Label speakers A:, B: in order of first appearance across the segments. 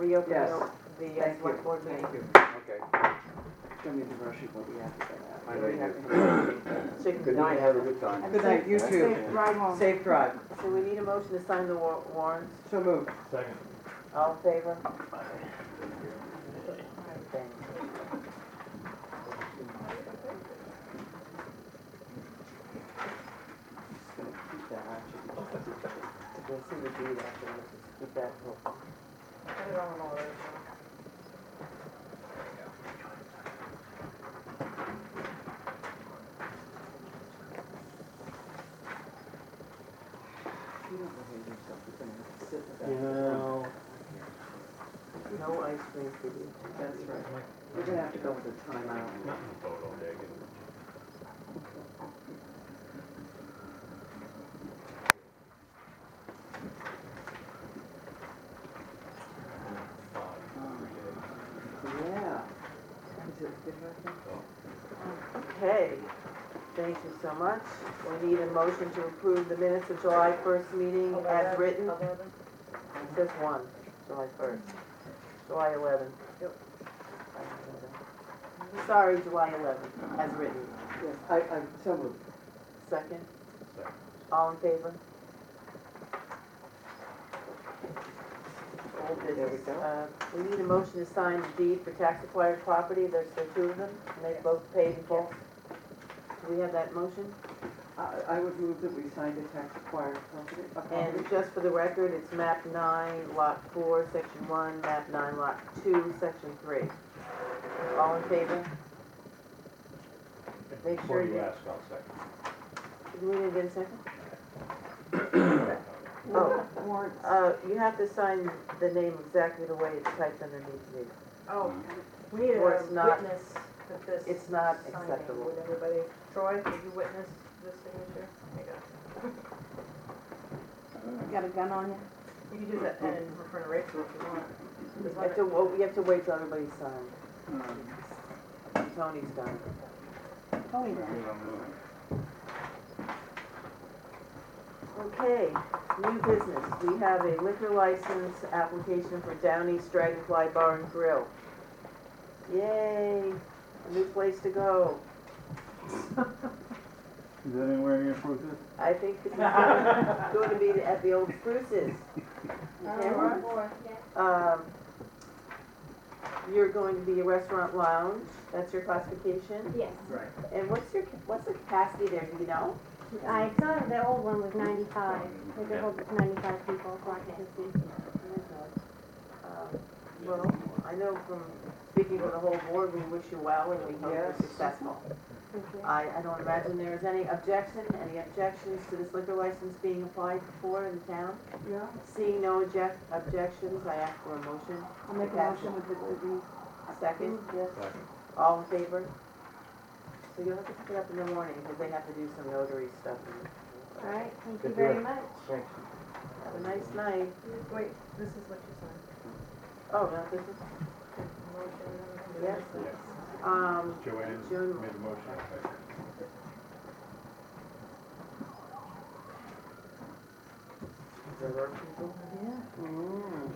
A: reopen
B: Yes.
A: the, the uh,
B: Thank you,
A: select board meeting.
B: thank you.
C: Okay.
B: Show me the brochure, what we have to say
C: I know
B: now. What do we
C: you
B: have
C: do.
B: to do?
A: So you can
C: Good night,
A: dine
C: have a
A: out.
C: good time.
B: Good night, you too.
D: Right home.
B: Safe drive.
A: So we need a motion to sign the wa- warrants,
B: So moved.
E: Second.
A: all in favor?
B: Just gonna keep that, actually. We'll see the deed after, we'll just keep that. whole- You don't behave yourself, you're gonna have to sit with that.
E: You know,
A: No ice cream for you.
B: That's right. We're gonna have to go with a timeout.
E: not in the boat all day, getting five every day.
B: Yeah. Is it good right now?
A: Okay, thank you so much. We need a motion to approve the minutes of July first meeting as written. It says one, July first, July eleventh. Sorry, July eleventh, as written.
B: Yes, I, I'm so moved.
A: Second,
E: Second.
A: all in favor? Old
B: There we
A: business.
B: go.
A: Uh, We need a motion to sign the deed for tax acquired property, there's the two of them, and they both paid in full. Do we have that motion?
B: I, I would move that we signed a tax acquired property. a
A: And
B: property.
A: just for the record, it's map nine, lot four, section one, map nine, lot two, section three. All in favor? Make sure
E: Before
A: you,
E: you ask, I'll second.
A: did we didn't get a second? Oh,
D: Warrants.
A: uh, you have to sign the name exactly the way it's typed underneath me.
D: Oh,
F: Mm-hmm.
D: we need a
A: Or it's not-
D: witness that this.
A: It's not
D: signing.
A: acceptable.
D: Would everybody, Troy, would you witness this signature? Oh There
F: Got a gun on you?
D: You can do that pen in front of Rachel if you want.
A: We have to, well, we have to wait till everybody's signed. Tony's done.
F: Oh, yeah.
A: Okay, new business. We have a liquor license application for Downey's Dragonfly Bar and Grill. Yay, a new place to go.
G: Is that anywhere near Fruitvale?
A: I think this is gonna gonna be at the old Spruces. Tamara? Um, You're going to be a restaurant lounge, that's your classification.
H: Yes.
B: Right.
A: And what's your, what's the capacity there, do you know?
H: I saw the old one was 95. They could hold 95 people occupancy.
A: Um, Well, I know from speaking with the whole board, we wish you well and we hope you're
B: Yes.
A: successful.
H: Thank you.
A: I, I don't imagine there is any objection, any objections to this liquor license being applied for in town?
B: Yeah.
A: Seeing no object, objections, I ask for a motion.
F: I'll make a motion with the, with the
A: Second,
E: Second.
A: all in favor? So you'll have to pick it up in the morning, because they have to do some notary stuff.
H: All right, thank you
C: Good
H: very
C: deal.
H: much.
C: Thanks.
A: Have a nice night.
D: Wait, this is what you signed.
A: Oh, no, this is,
D: Motion.
A: yes,
E: Yes.
A: um,
E: Joanne
A: Joan-
E: made a motion, I second.
A: there were people.
B: Mm.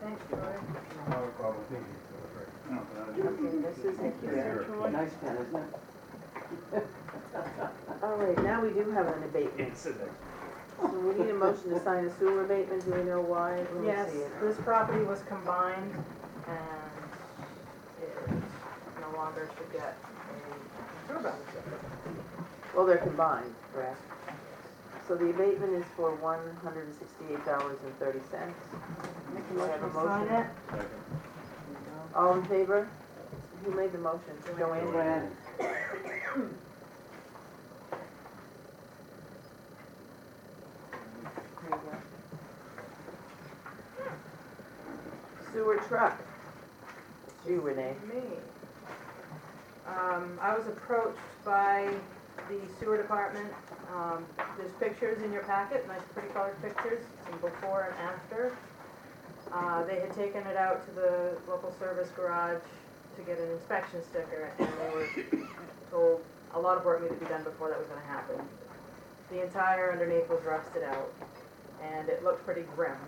D: Thanks, Troy.
E: No problem, thank you. That's right.
A: Okay, this is it.
E: Zero.
B: Nice pen, isn't it?
A: All right, Oh, now we do have an abatement.
E: It's in there.
A: So we need a motion to sign a sewer abatement, do we know why? Let me
D: Yes,
A: see it.
D: this property was combined and it no longer should get a sewer
A: Well, they're combined, correct? So the abatement is for one hundred and sixty-eight dollars and thirty cents.
D: Make
A: a motion to sign it.
E: Second.
A: All in favor? Who made the motion? Joanne?
B: Joanne.
A: There you go. Sewer truck. It's you, Renee.
D: Me. Um, I was approached by the sewer department. Um, there's pictures in your packet, nice pretty colored pictures, some before and after. Uh, they had taken it out to the local service garage to get an inspection sticker and they were told a lot of work needed to be done before that was gonna happen. The entire underneath was rusted out and it looked pretty grim.